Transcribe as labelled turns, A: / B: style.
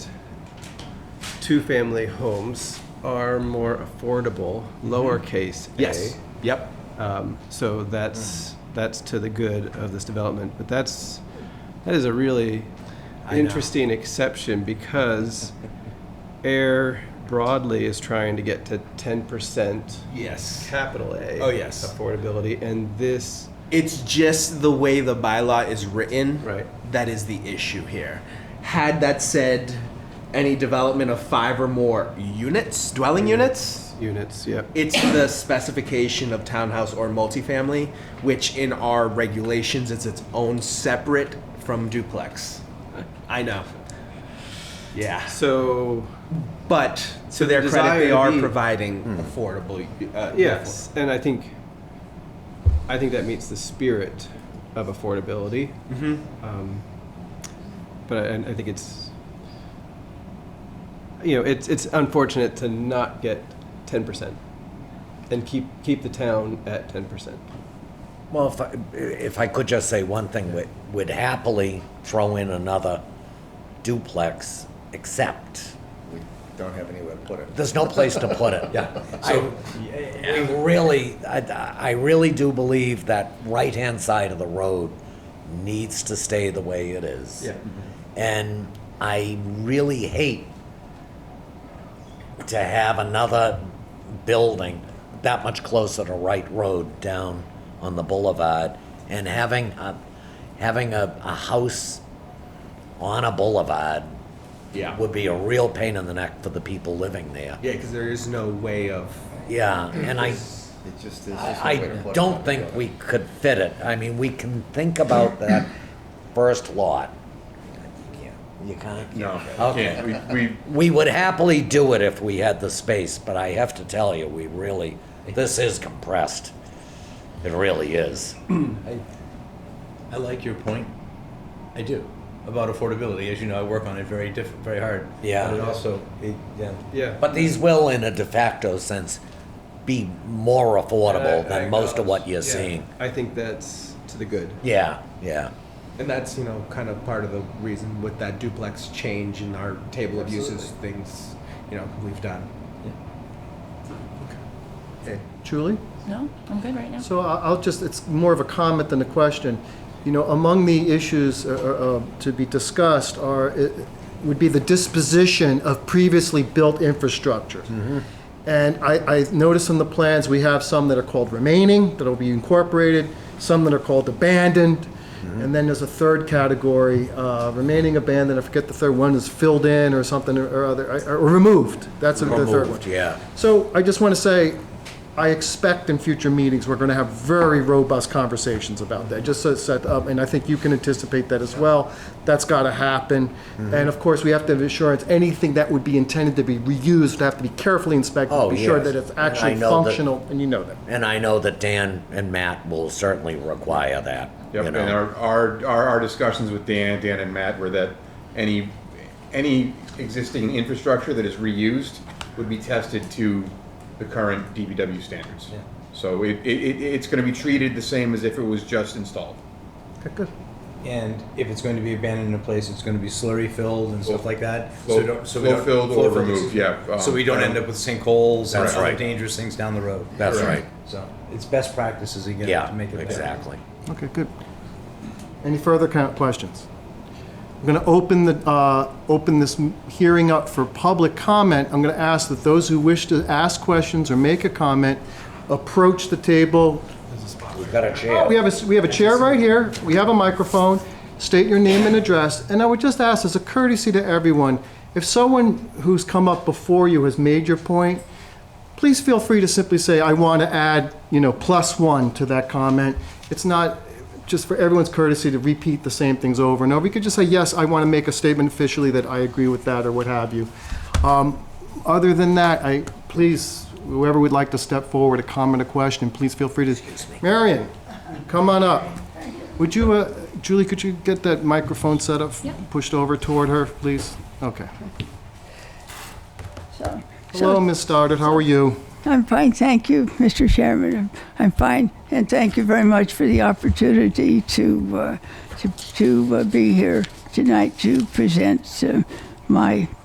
A: two-family homes are more affordable, lowercase a.
B: Mm-hmm. Yes. Mm. Yep.
A: Um, So that's, that's to the good of this development, but that's, that is a really
B: I know.
A: interesting exception because air broadly is trying to get to ten percent
B: Yes.
A: capital A.
B: Oh, yes.
A: Affordability, and this,
B: It's just the way the bylaw is written.
A: Right.
B: That is the issue here. Had that said, any development of five or more units, dwelling
A: Mm-hmm.
B: units,
A: units, yep.
B: it's the specification of townhouse or multifamily, which in our regulations it's its own separate from duplex. I know. Yeah.
A: So,
B: But
A: So
B: to their
A: the
B: credit, they
A: desire
B: are
A: be- Hmm.
B: providing affordable. Uh,
A: yes, and I think, I think that meets the spirit of affordability.
B: hmm
A: Um, but I, and I think it's, you know, it's it's unfortunate to not get ten percent, and keep keep the town at ten percent.
C: Well, if I, if I could just say one thing, we would happily throw in another duplex, except
D: We don't have anywhere to put it.
C: there's no place to put it.
D: Yeah.
C: So, I really, I, I really do believe that right-hand side of the road needs to stay the way it is.
A: Yeah.
C: And I really hate to have another building that much closer to Wright Road down on the boulevard and having a, having a, a house on a boulevard
B: Yeah.
C: would be a real pain in the neck for the people living there.
B: Yeah, because there is no way of.
C: Yeah, and I,
D: It just, there's just no
C: I
D: way to put it.
C: don't think we could fit it. I mean, we can think about that first lot. You can't?
D: No.
C: Okay.
D: We, we,
C: We would happily do it if we had the space, but I have to tell you, we really, this is compressed. It really is.
E: I, I like your point. I do about affordability. As you know, I work on it very diff- very hard.
C: Yeah.
E: But it also, it, yeah.
A: Yeah.
C: But these will, in a de facto sense, be more affordable than most of what you're seeing.
A: I think that's to the good.
C: Yeah, yeah.
B: And that's, you know, kind of part of the reason with that duplex change in our table of uses, things, you know, we've done. Okay.
F: Julie?
G: No, I'm good right now.
F: So I- I'll just, it's more of a comment than a question. You know, among the issues uh, uh, uh, to be discussed are, uh, would be the disposition of previously built infrastructure.
C: Mm-hmm.
F: And I, I noticed in the plans, we have some that are called remaining, that'll be incorporated, some that are called abandoned,
C: Mm-hmm.
F: and then there's a third category, uh, remaining, abandoned, I forget the third one, is filled in or something or other, or removed. That's the third one.
C: Removed, yeah.
F: So I just want to say, I expect in future meetings, we're going to have very robust conversations about that, just so it's set up, and I think you can anticipate that as well. That's got to happen.
C: Mm-hmm.
F: And of course, we have to have assurance, anything that would be intended to be reused would have to be carefully inspected, to
C: Oh,
F: be sure
C: yes.
F: that it's
C: And I
F: actually
C: know that-
F: functional, and you know that.
C: And I know that Dan and Matt will certainly require that,
D: Yep,
C: you
D: and
C: know.
D: our, our, our, our discussions with Dan, Dan and Matt were that any, any existing infrastructure that is reused would be tested to the current DBW standards. So it, it, it- it's gonna be treated the same as if it was just installed.
E: And if it's going to be abandoned in a place, it's going to be slurry filled and stuff like that.
D: Flow-
E: so don't, so we
D: flow
E: don't,
D: filled or
E: flow-filled,
D: removed, yeah, um,
E: so we
D: I
E: don't
D: don't-
E: end up with sinkholes and
C: That's
E: other
C: right.
E: dangerous things down the road.
C: That's right.
E: So it's best practices again
C: Yeah,
E: to make it better.
C: exactly.
F: Okay, good. Any further co- questions? I'm going to open the, uh, open this m- hearing up for public comment. I'm going to ask that those who wish to ask questions or make a comment approach the table.
C: We've got a chair.
F: Oh, We have a, s- we have a chair right here, we have a microphone, state your name and address, and I would just ask as a courtesy to everyone, if someone who's come up before you has made your point, please feel free to simply say, I want to add, you know, plus one to that comment. It's not, just for everyone's courtesy to repeat the same things over and over. You could just say, yes, I want to make a statement officially that I agree with that, or what have you. Um, Other than that, I, please, whoever would like to step forward, a comment, a question, please feel free to. Marion, come on up. Would you, uh, Julie, could you get that microphone set up,
G: Yeah.
F: pushed over toward her, please? Okay.
H: So,
F: Hello, Ms. Stoddard, how are you?
H: I'm fine, thank you, Mr. Chairman. I'm- I'm fine, and thank you very much for the opportunity to uh, to, to uh, be here tonight to present uh, my